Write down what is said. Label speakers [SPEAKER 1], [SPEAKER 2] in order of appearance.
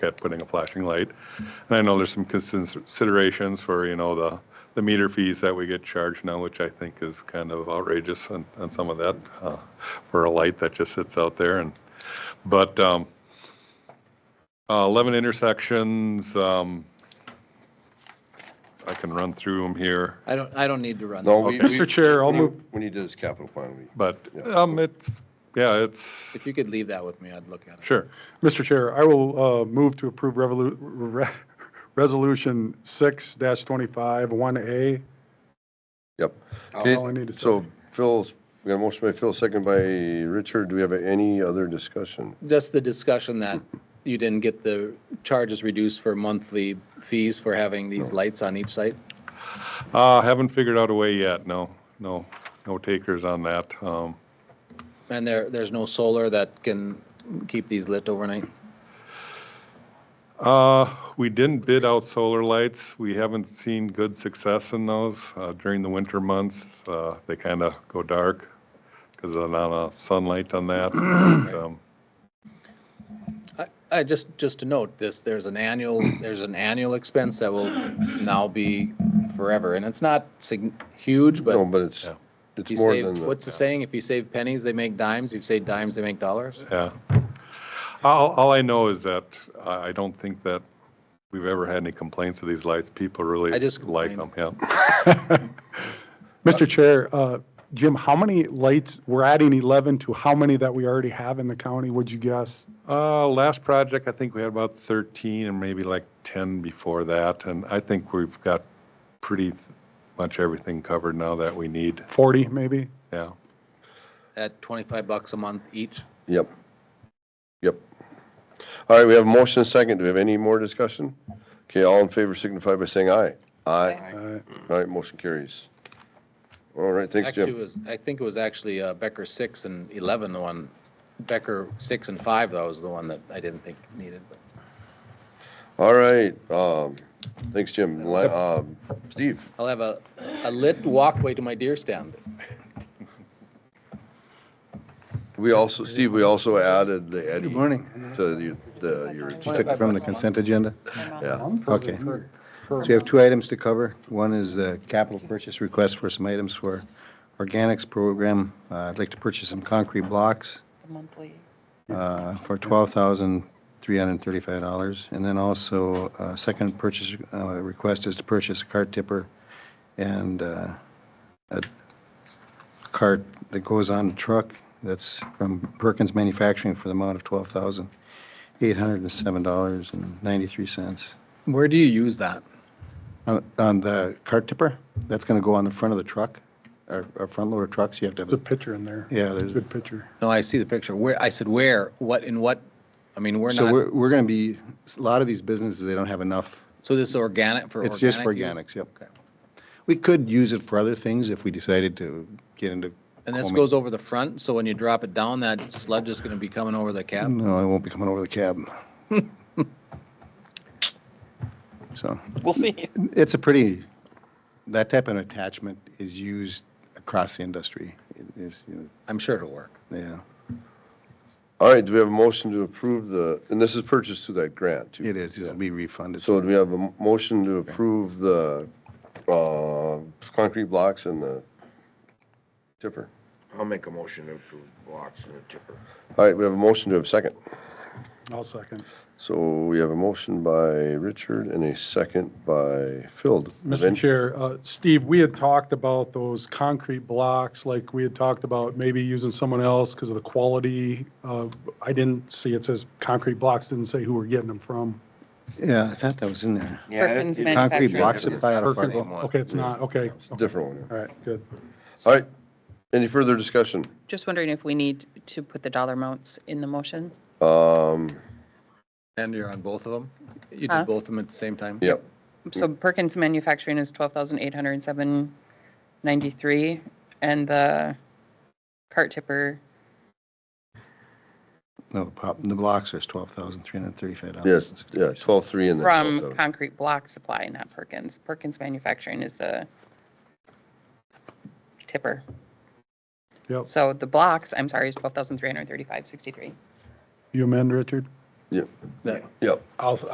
[SPEAKER 1] at putting a flashing light. And I know there's some consins- considerations for, you know, the, the meter fees that we get charged now, which I think is kind of outrageous on, on some of that, uh, for a light that just sits out there and, but, um, uh, 11 intersections, um, I can run through them here.
[SPEAKER 2] I don't, I don't need to run.
[SPEAKER 3] No,
[SPEAKER 2] that.
[SPEAKER 3] we.
[SPEAKER 1] Okay. Mr.
[SPEAKER 3] we-
[SPEAKER 1] Chair, I'll
[SPEAKER 3] when you-
[SPEAKER 1] move-
[SPEAKER 3] When you do this capital plan, we.
[SPEAKER 1] But,
[SPEAKER 3] Yeah.
[SPEAKER 1] um, it's, yeah, it's,
[SPEAKER 2] If you could leave that with me, I'd look at it.
[SPEAKER 1] sure.
[SPEAKER 4] Mr. Chair, I will uh, move to approve revolu- re- Resolution 6-25-1A.
[SPEAKER 3] Yep.
[SPEAKER 4] That's
[SPEAKER 3] See,
[SPEAKER 4] all I need to say.
[SPEAKER 3] So Phil's, we got a motion by Phil, second by Richard. Do we have any other discussion?
[SPEAKER 2] Just the discussion that you didn't get the charges reduced for monthly fees for having these lights on each site.
[SPEAKER 1] Uh, haven't figured out a way yet, no, no, no takers on that. Um,
[SPEAKER 2] And there, there's no solar that can keep these lit overnight.
[SPEAKER 1] Uh, we didn't bid out solar lights. We haven't seen good success in those uh, during the winter months. Uh, They kind of go dark because of the amount of sunlight on that. Um,
[SPEAKER 2] I, I just, just to note this, there's an annual, there's an annual expense that will now be forever. And it's not sig- huge,
[SPEAKER 3] No,
[SPEAKER 2] but
[SPEAKER 3] but it's,
[SPEAKER 1] yeah.
[SPEAKER 3] it's
[SPEAKER 2] you
[SPEAKER 3] more
[SPEAKER 2] save,
[SPEAKER 3] than,
[SPEAKER 2] what's
[SPEAKER 3] the-
[SPEAKER 2] the saying? If you save pennies, they make dimes. If you save dimes, they make dollars.
[SPEAKER 1] Yeah. All, all I know is that I I don't think that we've ever had any complaints of these lights. People really
[SPEAKER 2] I just
[SPEAKER 1] like them,
[SPEAKER 2] complained.
[SPEAKER 1] yeah.
[SPEAKER 4] Mr. Chair, uh, Jim, how many lights, we're adding 11 to how many that we already have in the county, would you guess?
[SPEAKER 1] Uh, last project, I think we had about 13 and maybe like 10 before that. And I think we've got pretty much everything covered now that we need,
[SPEAKER 4] 40, maybe?
[SPEAKER 1] yeah.
[SPEAKER 2] at 25 bucks a month each.
[SPEAKER 3] yep. Yep. All right, we have a motion second. Do we have any more discussion? Okay, all in favor signify by saying aye. Aye.
[SPEAKER 4] Uh,
[SPEAKER 3] All right, motion carries. All right, thanks,
[SPEAKER 2] Actually, it
[SPEAKER 3] Jim.
[SPEAKER 2] was, I think it was actually uh, Becker 6 and 11, the one, Becker 6 and 5, that was the one that I didn't think needed. but-
[SPEAKER 3] All right, um, thanks, Jim. Li- um, Steve,
[SPEAKER 2] I'll have a, a lit walkway to my deer stand.
[SPEAKER 3] we also, Steve, we also added the Eddie.
[SPEAKER 5] Good morning.
[SPEAKER 3] To you- the, your,
[SPEAKER 5] Just took it from the consent agenda.
[SPEAKER 3] yeah.
[SPEAKER 5] Okay. So we have two items to cover. One is the capital purchase request for some items for organics program. Uh, I'd like to purchase some concrete blocks
[SPEAKER 6] monthly.
[SPEAKER 5] uh, for $12,335. And then also, uh, second purchase uh, request is to purchase a cart tipper and uh, a cart that goes on a truck that's from Perkins Manufacturing for the amount of $12,807.93.
[SPEAKER 2] Where do you use that?
[SPEAKER 5] On on the cart tipper, that's going to go on the front of the truck, our our front loader trucks, you have to have,
[SPEAKER 4] There's a
[SPEAKER 5] a-
[SPEAKER 4] picture in there.
[SPEAKER 5] yeah, there's.
[SPEAKER 4] Good picture.
[SPEAKER 2] No, I see the picture. Where, I said where, what, in what, I mean, we're
[SPEAKER 5] So
[SPEAKER 2] not,
[SPEAKER 5] we're, we're going to be, a lot of these businesses, they don't have enough,
[SPEAKER 2] so this is organic for organic?
[SPEAKER 5] it's just for
[SPEAKER 2] use?
[SPEAKER 5] organics, yep.
[SPEAKER 2] Okay.
[SPEAKER 5] We could use it for other things if we decided to get into.
[SPEAKER 2] And this
[SPEAKER 5] combing.
[SPEAKER 2] goes over the front, so when you drop it down, that sludge is going to be coming over the cap?
[SPEAKER 5] No, it won't be coming over the cab. So. We'll see. It's a pretty, that type of attachment is used across the industry, It is, you
[SPEAKER 2] I'm sure it'll work.
[SPEAKER 5] know, yeah.
[SPEAKER 3] All right, do we have a motion to approve the, and this is purchased through that grant, too?
[SPEAKER 5] It is, it'll be refunded.
[SPEAKER 3] So do we have a m- motion to approve the uh, concrete blocks and the tipper?
[SPEAKER 7] I'll make a motion to approve blocks and a tipper.
[SPEAKER 3] All right, we have a motion to have a second.
[SPEAKER 4] I'll second.
[SPEAKER 3] So we have a motion by Richard and a second by Phil.
[SPEAKER 4] Mr. Chair, uh, Steve, we had talked about those concrete blocks, like we had talked about maybe using someone else because of the quality. Uh, I didn't see, it says concrete blocks, didn't say who we're getting them from.
[SPEAKER 5] Yeah, I thought that was in there.
[SPEAKER 6] Perkins
[SPEAKER 5] Concrete
[SPEAKER 6] Manufacturing.
[SPEAKER 5] block supply out of
[SPEAKER 4] Perkins-
[SPEAKER 5] Fargo.
[SPEAKER 4] Okay, it's not, okay.
[SPEAKER 3] It's a different one.
[SPEAKER 4] All right, good.
[SPEAKER 3] All right, any further discussion?
[SPEAKER 6] Just wondering if we need to put the dollar amounts in the motion?
[SPEAKER 3] Um,
[SPEAKER 2] And you're on both of them? You do
[SPEAKER 6] Huh?
[SPEAKER 2] both of them at the same time?
[SPEAKER 3] Yep,
[SPEAKER 6] So Perkins Manufacturing is twelve thousand eight hundred and seven ninety-three, and the cart tipper,
[SPEAKER 5] No, the pop, the blocks is twelve thousand three hundred thirty-five dollars.
[SPEAKER 3] yes, yeah, 12-3 and then
[SPEAKER 6] from
[SPEAKER 3] 12
[SPEAKER 6] Concrete Block Supply, not Perkins. Perkins Manufacturing is the tipper.
[SPEAKER 4] Yep.
[SPEAKER 6] So the blocks, I'm sorry, is twelve thousand three hundred and thirty-five sixty-three.
[SPEAKER 4] You amend, Richard?
[SPEAKER 8] Yep,
[SPEAKER 9] That-
[SPEAKER 8] yep.
[SPEAKER 3] I'll,